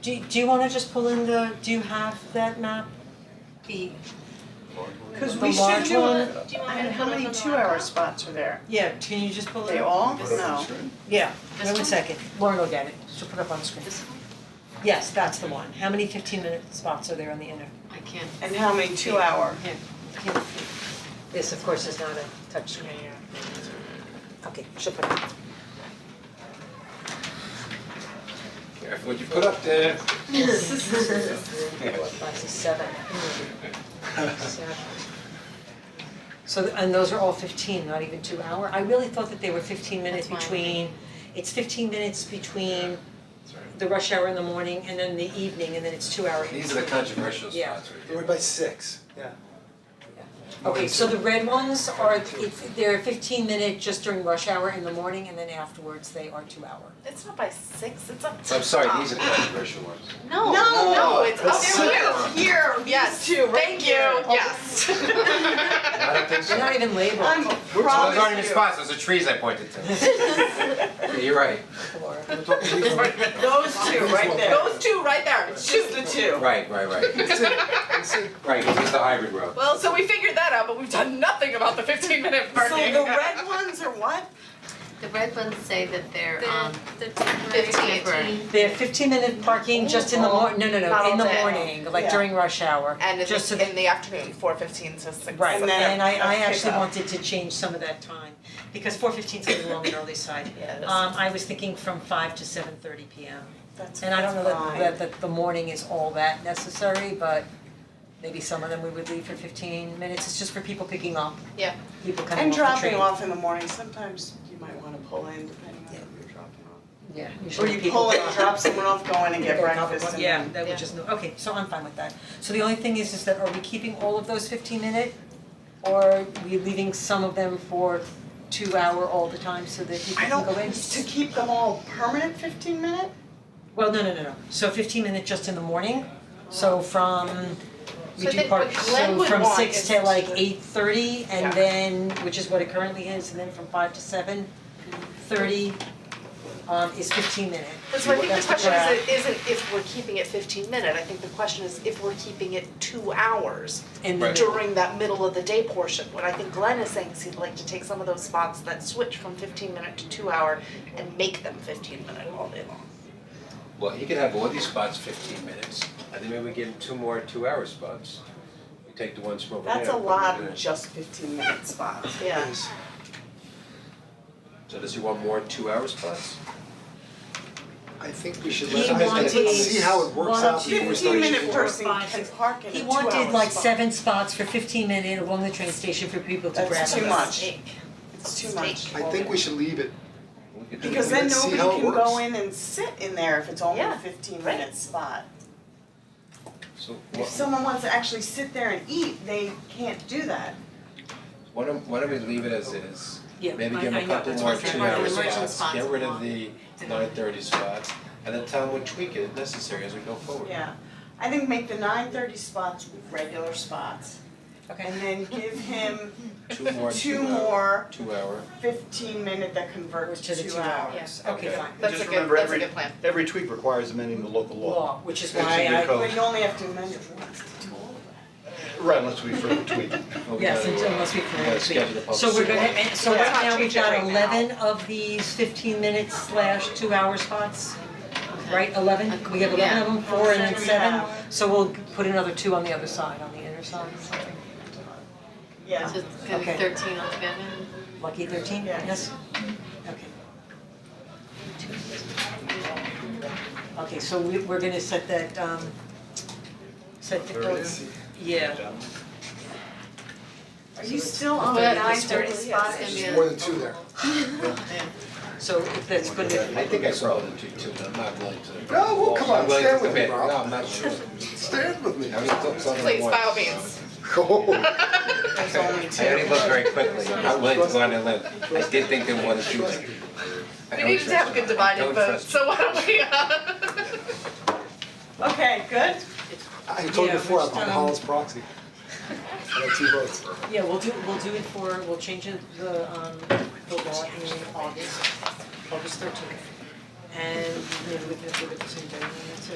Do do you wanna just pull in the, do you have that map? The Cause The we should large do, one? a- I mean, how many two-hour spots are there? Yeah, can you just pull it? They up? all, no, Yeah, This wait a one? second, Lauren will get it, she'll put it up on the screen. This one? Yes, that's the one, how many fifteen minute spots are there on the inner? I can't. and how many two-hour? Yeah. This, of course, is not a touchscreen. Okay, she'll put it up. Careful what you put up there. seven. So, th- and those are all fifteen, not even two hour, I really thought that they were fifteen minutes That's why I between, it's fifteen minutes between the rush hour in the morning and then the evening, and then it's two hour. These are the controversial Yeah. spots right They were here. by six, yeah. Okay, so the red ones are, it's, they're fifteen minute just during rush hour in the morning, and then afterwards they are two hour. It's not by six, it's up So I'm sorry, these are the controversial ones. No. No, no, it's up It's here. six. Here, yes, two right thank you, here. yes. I don't think so. They're not even labeled, I'm Those aren't even promise you, spots, those are trees I pointed to. Yeah, You're right, Laura. We're talking these ones. those two right there, Those two right there, It's shoot. just the two. right, right, right. That's it. That's it. Right, this is the hybrid road. Well, so we figured that out, but we've done nothing about the fifteen minute So parking. the red ones are what? The red ones say that they're um the temporary. Fifteen. temporary. They have fifteen minute parking just in the mor- no, no, Not no, all in the day. morning, like Yeah. during rush hour, And in just so the, that in the afternoon, four fifteen to six. Right, And then and I I pick actually up. wanted to change some of that time, because four fifteen's a little on the early side. Yeah, it is. Um, I was thinking from five to seven thirty P M. That's And I don't know fine. that that that the morning is all that necessary, but maybe some of them we would leave for fifteen minutes, it's just for people picking up, Yeah. people coming And off the train. dropping off in the morning, sometimes you might wanna pull in depending on who you're dropping off. Yeah, Or usually you people. pull in, drop someone off, go in and get Pick up breakfast one- and Yeah, then- that Yeah. would just, no- okay, so I'm fine with that. So the only thing is, is that are we keeping all of those fifteen minute? Or are we leaving some of them for two hour all the time so that people I can don't, go in? to keep them all permanent fifteen minute? Well, no, no, no, no, so fifteen minute just in the morning, so from, we So I do think park, what Glenn so would from want six is to like to- eight thirty Yeah. and then, which is what it currently is, and then from five to seven thirty um is fifteen minute. But so I think the That's question what I- is, isn't if we're keeping it fifteen minute, I think the question is if we're keeping it two hours in the Right. middle. during that middle of the day portion. What I think Glenn is saying is he'd like to take some of those spots that switch from fifteen minute to two hour and make them fifteen minute all day long. Well, he could have all these spots fifteen minutes, and then maybe we give him two more two-hour spots. We take the ones from over there. That's a put them lot in. of just fifteen minute spots. Yeah. So does he want more two-hour spots? I think we should He let, I- I- wanted let's see how it works one out of before Fifteen we start using minute more. person five, can six. park in a He two wanted hour like spot. seven spots for fifteen minute along the train station for people to grab. That's too us. much, it's too much. I think we should leave it, We could do Because that. then Let's see nobody how it can go works. in and sit in there if it's only a Yeah, fifteen right. minute spot. So If what, someone wants to actually sit there and eat, they can't do that. why don't, why don't we leave it as is? Yeah, Maybe I- give him I a know, couple that's more what I'm saying. two-hour Right, the emergent spots, spots get rid of along. the nine-thirty spots, and then tell him we tweak it if necessary as we go forward. Yeah, I think make the nine thirty spots regular spots and Okay, then give him Two more, two two-hour- more Two-hour. fifteen minute that convert to the two hours. hours, okay, Yeah. fine. That's a Just good, remember that's a every, good plan. every tweet requires amending the local law. Law, which is It's in why your I. code. But you only have to amend it once. Right, unless we further tweak. Well, we Yes, gotta, until uh, unless we we can gotta schedule the public So we're gonna, hearing. and so Let's right not now, we've change it got right now. eleven of these fifteen minutes slash two hour spots, right, eleven? We have eleven of them, four and then seven, Yeah. so we'll put another two on the other side, on the inner side, Yeah. So it's gonna be Okay. thirteen altogether. lucky thirteen, Yeah. yes? Okay. Okay, so we, we're gonna set that, um, set the. Let's Yeah. Are you still on But that nine nine thirty thirty spot? spots gonna be There's a- more than two there. So if that's good, I think I saw it in two, two, but I'm not willing to. No, well, come on, I'm willing to stand with me, commit. Rob. No, I'm not sure. Stand with me. I only took something Please, by all once. means. Oh, There's only two. I only looked very quickly, I'm not willing to go on a limb, I did think there was two there. I We don't needed to have a good trust dividing Don't vote, trust so why don't we, uh, Okay, good. I told Yeah, you before, I'm just, on um, Holland's proxy. I got two votes. Yeah, we'll do, we'll do it for, we'll change it, the, um, the law in August, August thirteenth. And maybe we can do it the same day, and that's it.